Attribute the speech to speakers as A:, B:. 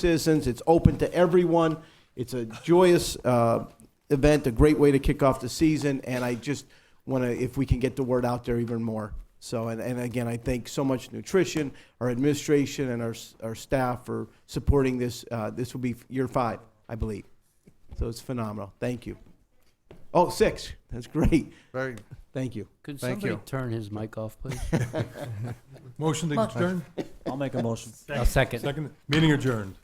A: citizens. It's open to everyone. It's a joyous uh, event, a great way to kick off the season, and I just want to, if we can get the word out there even more. So, and, and again, I thank so much nutrition, our administration, and our, s- our staff for supporting this. Uh, this will be year five, I believe. So it's phenomenal. Thank you. Oh, six. That's great.
B: Very,
A: Thank you.
C: Could
B: Thank
C: somebody
B: you.
C: turn his mic off, please?
D: Motion to adjourn?
E: I'll make a motion.
C: I'll second.
D: Second, meeting adjourned.